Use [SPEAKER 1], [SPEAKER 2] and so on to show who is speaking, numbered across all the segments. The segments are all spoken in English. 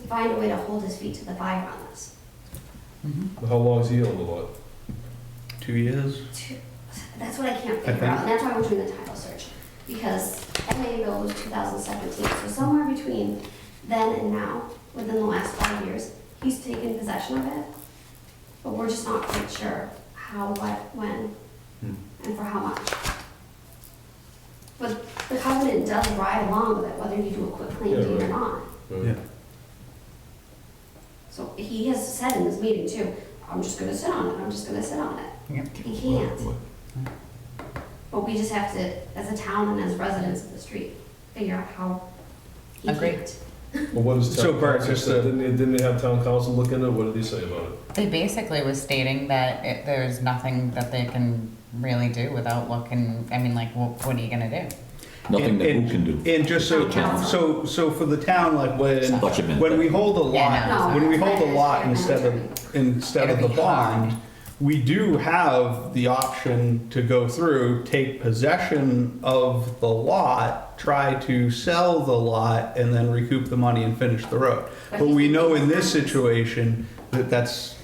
[SPEAKER 1] find a way to hold his feet to the fire on this.
[SPEAKER 2] How long's he on the lot?
[SPEAKER 3] Two years?
[SPEAKER 1] Two- That's what I can't figure
[SPEAKER 3] I
[SPEAKER 1] out,
[SPEAKER 3] think-
[SPEAKER 1] and that's why I'm doing the title search, because MA bill was two thousand seventeen, so somewhere between then and now, within the last five years, he's taken possession of it, but we're just not quite sure how, what, when, and for how much. But the covenant does ride along with it, whether you do a quick claim
[SPEAKER 2] Yeah,
[SPEAKER 1] deed or
[SPEAKER 2] right.
[SPEAKER 1] not.
[SPEAKER 2] Right.
[SPEAKER 1] So he has said in this meeting too, I'm just gonna sit on it, I'm just gonna sit on it. He can't. But we just have to, as a town and as residents of the street, figure out how he
[SPEAKER 4] Agreed.
[SPEAKER 1] can't.
[SPEAKER 2] Well, what is
[SPEAKER 3] So
[SPEAKER 2] town
[SPEAKER 3] Bart,
[SPEAKER 2] council
[SPEAKER 3] just
[SPEAKER 2] say?
[SPEAKER 3] a-
[SPEAKER 2] Didn't they, didn't they have town council look into it? What did he say about it?
[SPEAKER 4] They basically was stating that it, there's nothing that they can really do without looking, I mean, like, what, what are you gonna do?
[SPEAKER 5] Nothing that
[SPEAKER 3] And-
[SPEAKER 5] who can do.
[SPEAKER 3] And just so, so, so for the town, like when,
[SPEAKER 5] What you meant.
[SPEAKER 3] when we hold a
[SPEAKER 4] Yeah, no,
[SPEAKER 3] lot,
[SPEAKER 4] it's
[SPEAKER 3] when we
[SPEAKER 1] not.
[SPEAKER 3] hold a lot instead of, instead of the
[SPEAKER 4] It'll be hard.
[SPEAKER 3] bond, we do have the option to go through, take possession of the lot, try to sell the lot, and then recoup the money and finish the road. But we know in this situation that that's,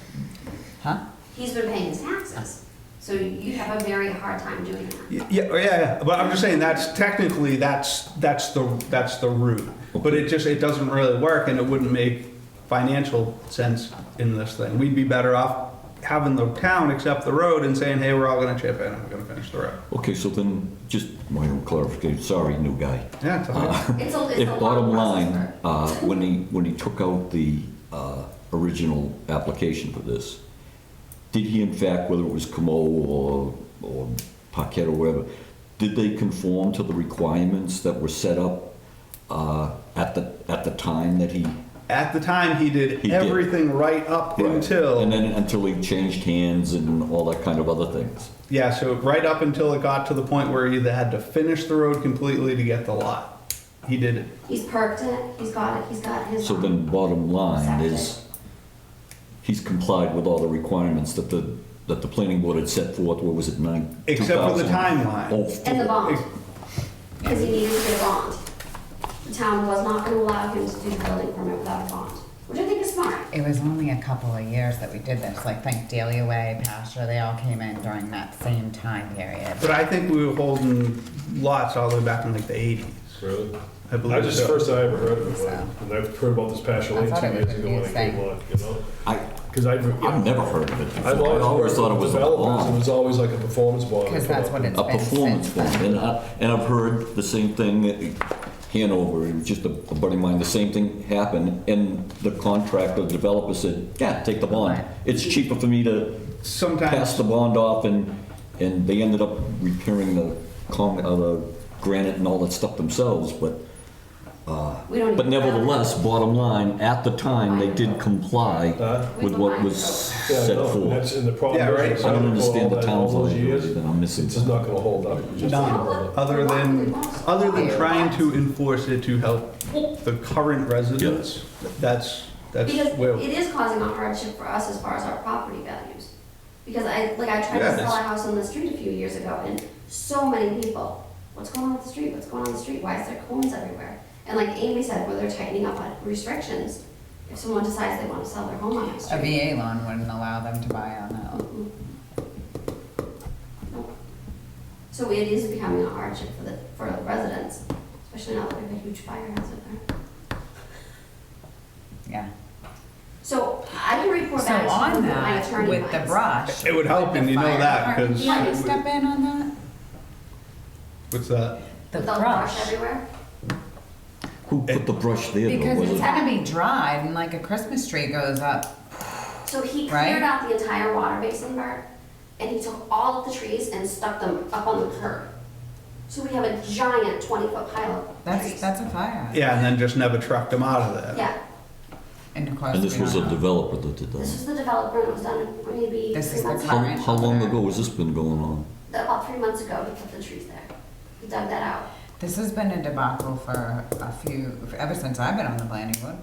[SPEAKER 4] Huh?
[SPEAKER 1] He's been paying his taxes, so you have a very hard time doing that.
[SPEAKER 3] Yeah, yeah, yeah, but I'm just saying that's technically that's that's the that's the route. But it just it doesn't really work, and it wouldn't make financial sense in this thing. We'd be better off having the town accept the road and saying, hey, we're all going to chip in and we're going to finish the road.
[SPEAKER 5] Okay, so then, just minor clarification, sorry, new guy.
[SPEAKER 3] Yeah, it's all good.
[SPEAKER 5] Uh-huh.
[SPEAKER 1] It's a, it's a
[SPEAKER 5] If
[SPEAKER 1] long
[SPEAKER 5] bottom
[SPEAKER 1] process
[SPEAKER 5] line,
[SPEAKER 1] for-
[SPEAKER 5] uh, when he, when he took out the uh, original application for this, did he in fact, whether it was Camo or, or Paquette or whatever, did they conform to the requirements that were set up uh, at the, at the time that he?
[SPEAKER 3] At the time, he did
[SPEAKER 5] He did.
[SPEAKER 3] everything right up until
[SPEAKER 5] And then until he changed hands and all that kind of other things.
[SPEAKER 3] yeah, so right up until it got to the point where he either had to finish the road completely to get the lot. He did it.
[SPEAKER 1] He's perked it, he's got it, he's got his.
[SPEAKER 5] So then bottom line is, he's complied with all the requirements that the, that the planning board had set forth, what was it, nine?
[SPEAKER 3] Except for the
[SPEAKER 5] 2000?
[SPEAKER 3] timeline.
[SPEAKER 5] Oh,
[SPEAKER 1] And the bond,
[SPEAKER 3] Ex-
[SPEAKER 1] because he needed to get a bond. The town was not gonna allow him to do the building permit without a bond, which I think is smart.
[SPEAKER 4] It was only a couple of years that we did this, like, think Daily Way, Pasture, they all came in during that same time period.
[SPEAKER 3] But I think we were holding lots all the way back in like the 80s.
[SPEAKER 2] Really?
[SPEAKER 3] I believe
[SPEAKER 2] I just,
[SPEAKER 3] so.
[SPEAKER 2] first I ever heard of it,
[SPEAKER 4] So.
[SPEAKER 2] and I've heard about this passion
[SPEAKER 4] I
[SPEAKER 2] lane
[SPEAKER 4] thought
[SPEAKER 2] two
[SPEAKER 4] it was
[SPEAKER 2] years ago when I came
[SPEAKER 4] confusing.
[SPEAKER 2] along, you know?
[SPEAKER 5] I,
[SPEAKER 2] Because I've,
[SPEAKER 5] I've never heard of it before.
[SPEAKER 2] I've
[SPEAKER 5] I always
[SPEAKER 2] always
[SPEAKER 5] thought it
[SPEAKER 2] heard
[SPEAKER 5] was a
[SPEAKER 2] developers, it
[SPEAKER 5] bond,
[SPEAKER 2] was always like a performance bond.
[SPEAKER 4] Because that's what it's
[SPEAKER 5] a
[SPEAKER 4] been
[SPEAKER 5] performance
[SPEAKER 4] since
[SPEAKER 5] bond.
[SPEAKER 4] then.
[SPEAKER 5] And I, and I've heard the same thing, at Hanover, it was just a a buddy of mine, the same thing happened, and the contractor, the developer said, yeah, take the bond.
[SPEAKER 4] Right.
[SPEAKER 5] It's cheaper for me to passed
[SPEAKER 3] Sometimes,
[SPEAKER 5] the bond off and, and they ended up repairing the con, uh, the granite and all that stuff themselves, but,
[SPEAKER 1] We don't.
[SPEAKER 5] but
[SPEAKER 1] even have it.
[SPEAKER 5] nevertheless, bottom line, at the time, they did comply with what was
[SPEAKER 2] Yeah,
[SPEAKER 5] set
[SPEAKER 2] no, and
[SPEAKER 5] forth.
[SPEAKER 2] that's- And the problem
[SPEAKER 3] Yeah, right.
[SPEAKER 2] is,
[SPEAKER 5] I
[SPEAKER 2] after
[SPEAKER 5] don't
[SPEAKER 2] all
[SPEAKER 5] understand the
[SPEAKER 2] that-
[SPEAKER 5] town's
[SPEAKER 2] all those years,
[SPEAKER 5] liability, then I'm missing
[SPEAKER 2] It's just
[SPEAKER 5] something.
[SPEAKER 2] not gonna hold up. It's just not gonna hold
[SPEAKER 3] none,
[SPEAKER 2] up.
[SPEAKER 3] other than, other than trying to enforce it to help the current residents, that's, that's
[SPEAKER 1] Because
[SPEAKER 3] where,
[SPEAKER 1] it is causing a hardship for us as far as our property values. Because I, like, I tried to sell
[SPEAKER 3] Yeah,
[SPEAKER 1] a
[SPEAKER 3] that's-
[SPEAKER 1] house on the street a few years ago, and so many people, what's going on with the street, what's going on with the street, why is there cones everywhere? And like Amy said, where they're tightening up on restrictions, if someone decides they wanna sell their home on the
[SPEAKER 4] A
[SPEAKER 1] street.
[SPEAKER 4] VA loan wouldn't allow them to buy on that.
[SPEAKER 1] Mm-mm. Nope. So it is becoming a hardship for the, for the residents, especially now that we have a huge fire hazard there.
[SPEAKER 4] yeah.
[SPEAKER 1] So I can report
[SPEAKER 4] So
[SPEAKER 1] back to
[SPEAKER 4] on
[SPEAKER 1] you what my
[SPEAKER 4] that,
[SPEAKER 1] attorney
[SPEAKER 4] with the
[SPEAKER 1] finds.
[SPEAKER 4] brush.
[SPEAKER 3] It would help,
[SPEAKER 4] with the
[SPEAKER 3] and you know
[SPEAKER 4] fire
[SPEAKER 3] that,
[SPEAKER 4] department,
[SPEAKER 3] 'cause-
[SPEAKER 4] You want to step in on that?
[SPEAKER 3] what's that?
[SPEAKER 4] The
[SPEAKER 1] With all the brush
[SPEAKER 4] brush.
[SPEAKER 1] everywhere?
[SPEAKER 5] Who put the brush there though?
[SPEAKER 4] Because
[SPEAKER 5] Was
[SPEAKER 4] it's
[SPEAKER 5] it-
[SPEAKER 4] gonna be dried and like a Christmas tree goes up.
[SPEAKER 1] So he
[SPEAKER 4] Right?
[SPEAKER 1] cleared out the entire water basin, Bert, and he took all of the trees and stuck them up on the curb. So we have a giant twenty-foot pile of
[SPEAKER 4] That's,
[SPEAKER 1] trees.
[SPEAKER 4] that's a fire.
[SPEAKER 3] Yeah, and then just never trucked them out of there.
[SPEAKER 1] Yeah,
[SPEAKER 4] And of course,
[SPEAKER 5] And this
[SPEAKER 4] we
[SPEAKER 5] was a
[SPEAKER 4] don't know.
[SPEAKER 5] developer that
[SPEAKER 1] this
[SPEAKER 5] did that.
[SPEAKER 1] was the developer, and it was done maybe
[SPEAKER 4] This
[SPEAKER 1] three
[SPEAKER 4] is the
[SPEAKER 1] months
[SPEAKER 5] How,
[SPEAKER 1] ago.
[SPEAKER 4] current-
[SPEAKER 5] how long ago has this been going on?
[SPEAKER 1] About three months ago, he put the trees there. He dug that out.
[SPEAKER 4] This has been a debacle for a few, ever since I've been on the planning board.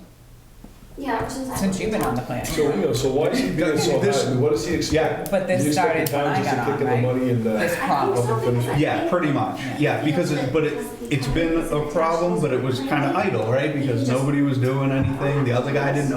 [SPEAKER 1] Yeah, ever since I.
[SPEAKER 4] Since you've been on the planning
[SPEAKER 2] So, you
[SPEAKER 4] board.
[SPEAKER 2] know, so why is he being so
[SPEAKER 3] This-
[SPEAKER 2] high? I mean, What does he expect?
[SPEAKER 4] But this
[SPEAKER 2] Do you expect
[SPEAKER 4] started
[SPEAKER 2] the
[SPEAKER 4] when
[SPEAKER 2] town
[SPEAKER 4] I
[SPEAKER 2] just to
[SPEAKER 4] got
[SPEAKER 2] kick
[SPEAKER 4] on,
[SPEAKER 2] in the
[SPEAKER 4] right?
[SPEAKER 2] money and, uh,
[SPEAKER 4] This
[SPEAKER 1] I think so,
[SPEAKER 2] problem.
[SPEAKER 1] because I
[SPEAKER 3] Yeah,
[SPEAKER 1] think-
[SPEAKER 3] pretty much, yeah, because, it- but it, it's been a problem, but it was kind of idle, right? Because nobody was doing anything, the other guy didn't